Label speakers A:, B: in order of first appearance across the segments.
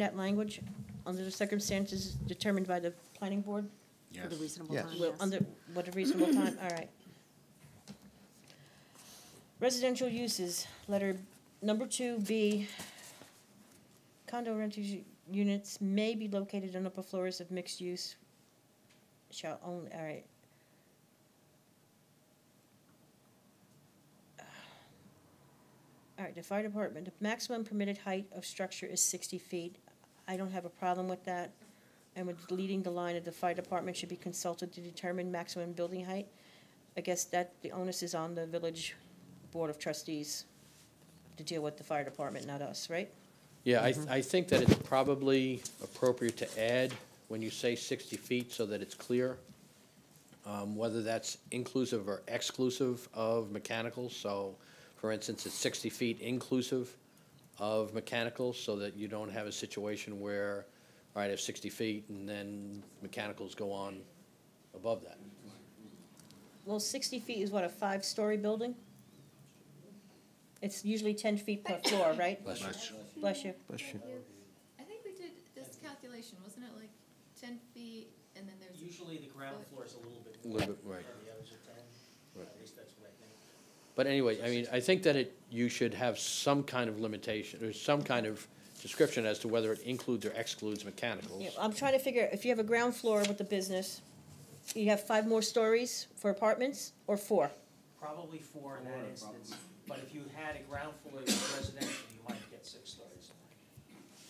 A: That language, under the circumstances determined by the planning board,
B: Yes.
C: For the reasonable
D: Yes.
C: time,
A: Well,
C: yes.
A: under, what a reasonable time, all right. Residential uses, letter number two B. Condo rental u- units may be located on upper floors of mixed use. Shall only, all right. All right, the fire department, the maximum permitted height of structure is sixty feet. I don't have a problem with that and with deleting the line of the fire department should be consulted to determine maximum building height. I guess that, the onus is on the village board of trustees to deal with the fire department, not us, right?
E: Yeah, I, I think that it's probably appropriate to add, when you say sixty feet, so that it's clear, um, whether that's inclusive or exclusive of mechanicals, so, for instance, it's sixty feet inclusive of mechanicals, so that you don't have a situation where, all right, I have sixty feet, and then mechanicals go on above that.
A: Well, sixty feet is what, a five-story building? It's usually ten feet per floor, right?
E: Bless you.
A: Bless you.
D: Bless you.
F: I think we did this calculation, wasn't it like ten feet and then there's,
G: Usually the ground floor is a little bit.
E: A little bit,
G: more,
E: right.
G: and The others are ten,
E: Right.
G: at least that's what I think.
E: But anyway, I mean, I think that it, you should have some kind of limitation, or some kind of description as to whether it includes or excludes mechanicals.
A: Yeah, I'm trying to figure, if you have a ground floor with the business, you have five more stories for apartments, or four?
G: Probably four in that instance, but if you had a ground floor that was residential, you might get six stories.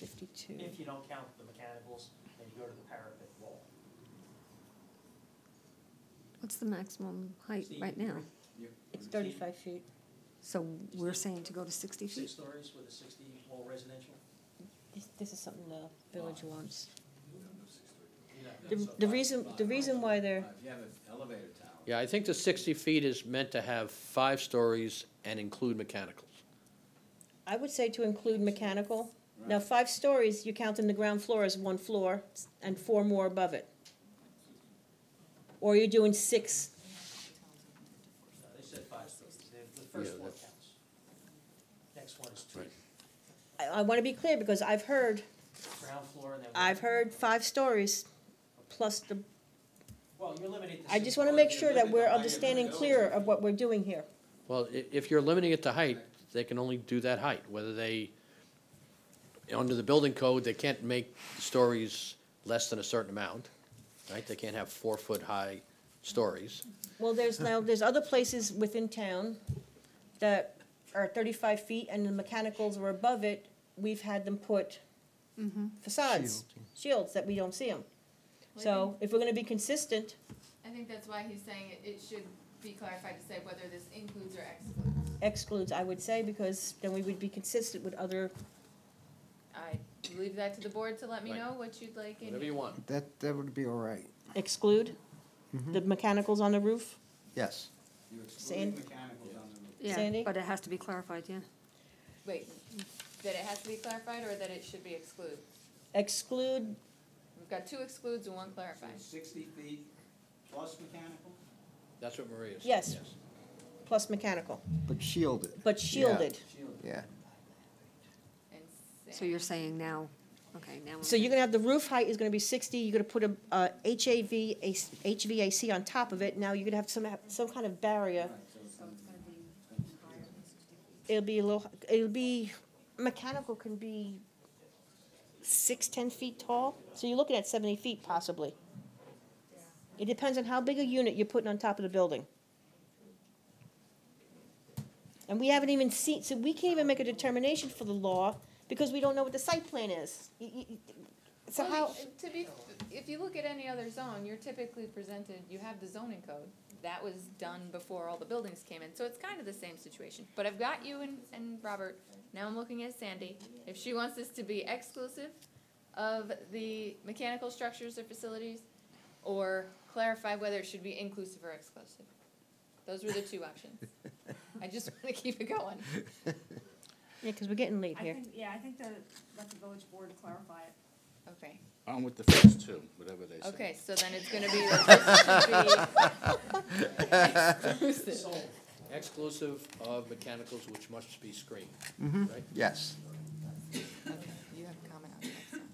A: Fifty-two.
G: If you don't count the mechanicals, then you go to the parapet wall.
C: What's the maximum height
G: See,
C: right now?
A: It's thirty-five feet.
C: So we're saying to go to sixty
G: Six
C: feet?
G: stories with a sixty wall residential?
A: This, this is something the village wants.
G: No,
A: The,
G: so
A: the
G: five-
A: reason, the reason why they're,
B: If you have an elevator tower.
E: Yeah, I think the sixty feet is meant to have five stories and include mechanicals.
A: I would say to include mechanical. Now, five stories, you count in the ground floor as one floor and four more above it. Or you're doing six,
G: no, They said five stories, the, the first
E: Yeah,
G: one
E: that's-
G: counts. Next one is two,
E: Right.
A: I, I wanna be clear because I've heard,
G: ground floor and then.
A: I've heard five stories plus the,
G: Well, you're limited to.
A: I
G: six
A: just wanna
G: stories.
A: make sure that we're understanding clearer of what we're doing here.
E: Well, i- if you're limiting it to height, they can only do that height, whether they, under the building code, they can't make stories less than a certain amount, right? They can't have four-foot-high stories.
A: Well, there's now, there's other places within town that are thirty-five feet and the mechanicals were above it. We've had them put Mm-hmm. facades, shields that we don't see them.
F: Well, I
A: So if we're gonna be consistent,
F: I think that's why he's saying it, it should be clarified to say whether this includes or excludes.
A: excludes, I would say, because then we would be consistent with other,
F: I leave that to the board to let me
E: Right.
F: know what you'd like in
E: Whatever you want.
D: That, that would be all right.
A: exclude the mechanicals on the roof,
D: Yes.
B: You're
A: Sand-
B: excluding mechanicals on the roof.
A: Sandy?
C: Yeah, but it has to be clarified, yeah.
F: Wait, that it has to be clarified or that it should be excluded?
A: exclude,
F: We've got two excludes and one
B: So
F: clarified.
B: Sixty feet plus mechanical?
E: That's what Maria said.
A: Yes. plus mechanical,
D: But shielded.
A: but
D: Yeah.
A: shielded.
B: Shielded.
D: Yeah.
F: And
C: So you're saying now, okay, now.
A: So you're gonna have, the roof height is gonna be sixty, you're gonna put a, uh, HAV, a- HVAC on top of it, now you're gonna have some, some kind of barrier.
B: Right, so it's gonna be-
A: It'll be a little, it'll be, mechanical can be six, ten feet tall, so you're looking at seventy feet possibly. It depends on how big a unit you're putting on top of the building. And we haven't even seen, so we can't even make a determination for the law, because we don't know what the site plan is. You- you- you- So
F: Well,
A: how,
F: To be, if you look at any other zone, you're typically presented, you have the zoning code. That was done before all the buildings came in, so it's kind of the same situation. But I've got you and, and Robert, now I'm looking at Sandy. If she wants this to be exclusive of the mechanical structures or facilities, or clarify whether it should be inclusive or exclusive. Those were the two options. I just wanna keep it going.
A: yeah, because we're getting late
H: I
A: here.
H: think, yeah, I think that, let the village board clarify it.
F: Okay,
I: I'm with the first two, whatever they say.
F: okay, so then it's gonna be, that this should be exclusive.
E: Exclusive of mechanicals which must be screened, right?
D: Yes.